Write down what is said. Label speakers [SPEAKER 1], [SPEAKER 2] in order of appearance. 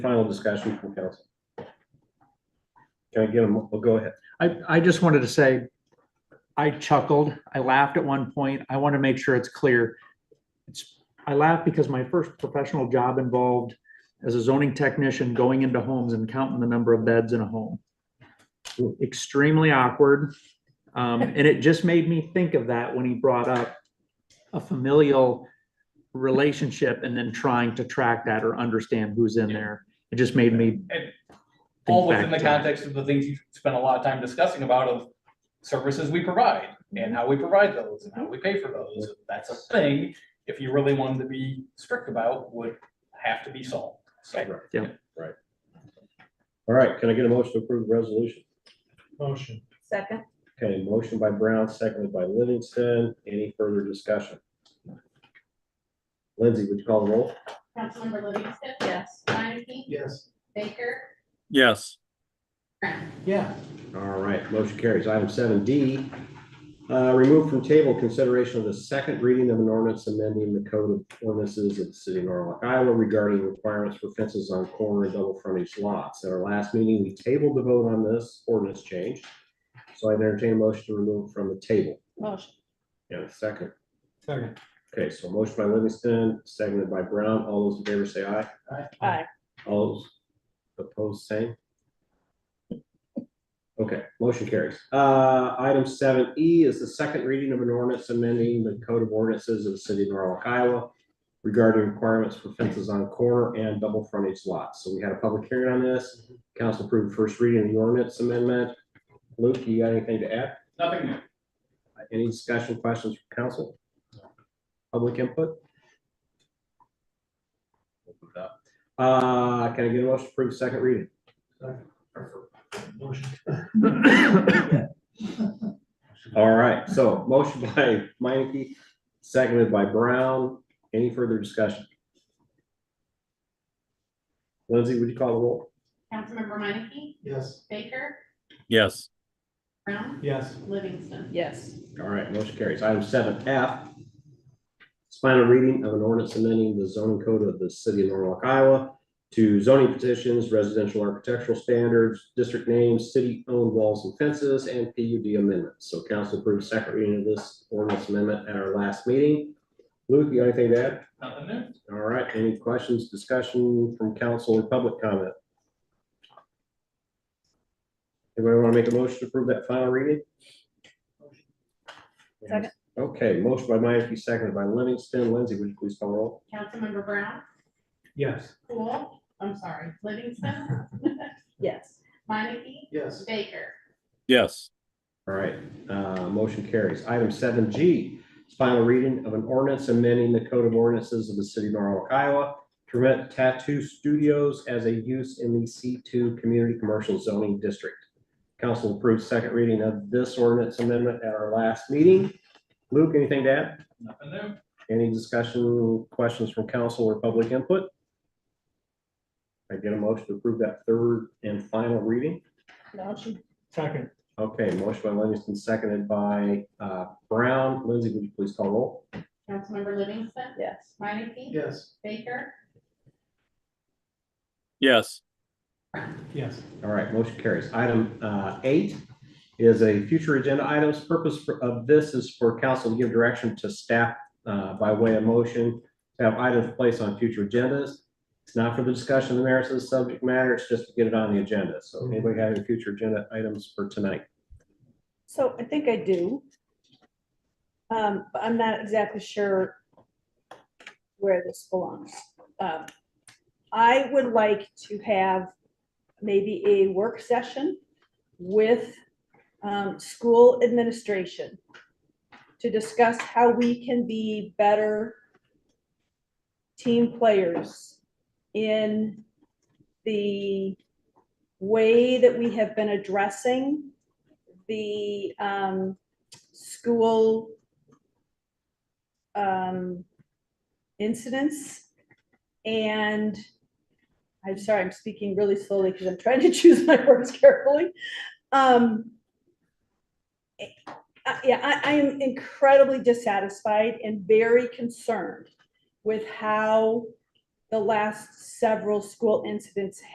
[SPEAKER 1] Final discussion from council. Can I get them, well, go ahead.
[SPEAKER 2] I, I just wanted to say, I chuckled, I laughed at one point. I want to make sure it's clear. It's, I laughed because my first professional job involved as a zoning technician, going into homes and counting the number of beds in a home. Extremely awkward. Um, and it just made me think of that when he brought up a familial relationship and then trying to track that or understand who's in there. It just made me.
[SPEAKER 3] And all
[SPEAKER 2] think
[SPEAKER 3] within the
[SPEAKER 2] back to that.
[SPEAKER 3] context of the things you spent a lot of time discussing about of services we provide and how we provide those and how we pay for those. That's a thing, if you really wanted to be strict about, would have to be solved. So
[SPEAKER 2] Yeah.
[SPEAKER 1] Right. All right, can I get a motion to approve the resolution?
[SPEAKER 4] Motion.
[SPEAKER 5] Second,
[SPEAKER 1] Okay, motion by Brown, seconded by Livingston. Any further discussion? Lindsay, would you call the roll?
[SPEAKER 6] Councilmember Livingston.
[SPEAKER 5] yes.
[SPEAKER 6] Minneke.
[SPEAKER 4] Yes.
[SPEAKER 6] Baker.
[SPEAKER 7] Yes,
[SPEAKER 4] Yeah.
[SPEAKER 1] All right, motion carries. Item seven D. Uh, remove from table consideration of the second reading of an ordinance amending the code of ordinances of the city of Norwalk, Iowa regarding requirements for fences on corner and double frontage lots. At our last meeting, we tabled the vote on this ordinance change. So I entertain a motion to remove from the table.
[SPEAKER 5] Motion,
[SPEAKER 1] And a second.
[SPEAKER 4] Second.
[SPEAKER 1] Okay, so motion by Livingston, seconded by Brown. All those in favor say aye.
[SPEAKER 5] aye.
[SPEAKER 1] All those opposed, same? Okay, motion carries. Uh, item seven E is the second reading of an ordinance amending the code of ordinances of the city of Norwalk, Iowa regarding requirements for fences on corner and double frontage lots. So we had a public hearing on this. Council approved first reading of the ordinance amendment. Luke, you got anything to add?
[SPEAKER 3] nothing new.
[SPEAKER 1] Any discussion, questions from council? Public input? Open it up. Uh, can I get a motion to approve second reading?
[SPEAKER 4] Motion.
[SPEAKER 1] All right, so motion by Minneke, seconded by Brown. Any further discussion? Lindsay, would you call the roll?
[SPEAKER 6] Councilmember Minneke.
[SPEAKER 4] Yes.
[SPEAKER 6] Baker.
[SPEAKER 7] yes,
[SPEAKER 6] Brown.
[SPEAKER 4] Yes.
[SPEAKER 6] Livingston.
[SPEAKER 5] Yes,
[SPEAKER 1] All right, motion carries. Item seven F. is Final reading of an ordinance amending the zoning code of the city of Norwalk, Iowa to zoning petitions, residential architectural standards, district names, city-owned walls and fences, and PUD amendments. So council approved second reading of this ordinance amendment at our last meeting. Luke, you got anything to add?
[SPEAKER 3] Nothing new.
[SPEAKER 1] All right, any questions, discussion from council or public comment? Anybody want to make a motion to approve that final reading?
[SPEAKER 5] Second.
[SPEAKER 1] Okay, motion by Minneke, seconded by Livingston. Lindsay, would you please call roll?
[SPEAKER 6] Councilmember Brown.
[SPEAKER 4] Yes.
[SPEAKER 6] Cool. I'm sorry. Livingston.
[SPEAKER 5] yes.
[SPEAKER 6] Minneke.
[SPEAKER 4] Yes.
[SPEAKER 6] Baker.
[SPEAKER 7] yes,
[SPEAKER 1] All right, uh, motion carries. Item seven G, is final reading of an ordinance amending the code of ordinances of the city of Norwalk, Iowa to permit tattoo studios as a use in the C two community commercial zoning district. Council approved second reading of this ordinance amendment at our last meeting. Luke, anything to add?
[SPEAKER 3] Nothing new.
[SPEAKER 1] Any discussion, questions from council or public input? I get a motion to approve that third and final reading?
[SPEAKER 5] Motion,
[SPEAKER 4] Second.
[SPEAKER 1] Okay, motion by Livingston, seconded by uh, Brown. Lindsay, would you please call roll?
[SPEAKER 6] Councilmember Livingston.
[SPEAKER 5] yes.
[SPEAKER 6] Minneke.
[SPEAKER 4] Yes.
[SPEAKER 6] Baker.
[SPEAKER 7] yes,
[SPEAKER 4] Yes.
[SPEAKER 1] All right, motion carries. Item uh, eight is a future agenda items. Purpose for- of this is for council to give direction to staff uh, by way of motion to have items placed on future agendas. It's not for the discussion of the merits of the subject matter. It's just to get it on the agenda. So anybody have any future agenda items for tonight?
[SPEAKER 5] So I think I do. Um, but I'm not exactly sure where this belongs. Um, I would like to have maybe a work session with, um, school administration to discuss how we can be better team players in the way that we have been addressing the um, school um, incidents. And I'm sorry, I'm speaking really slowly because I'm trying to choose my words carefully. Um, I- I- Yeah, I, I am incredibly dissatisfied and very concerned with how the last several school incidents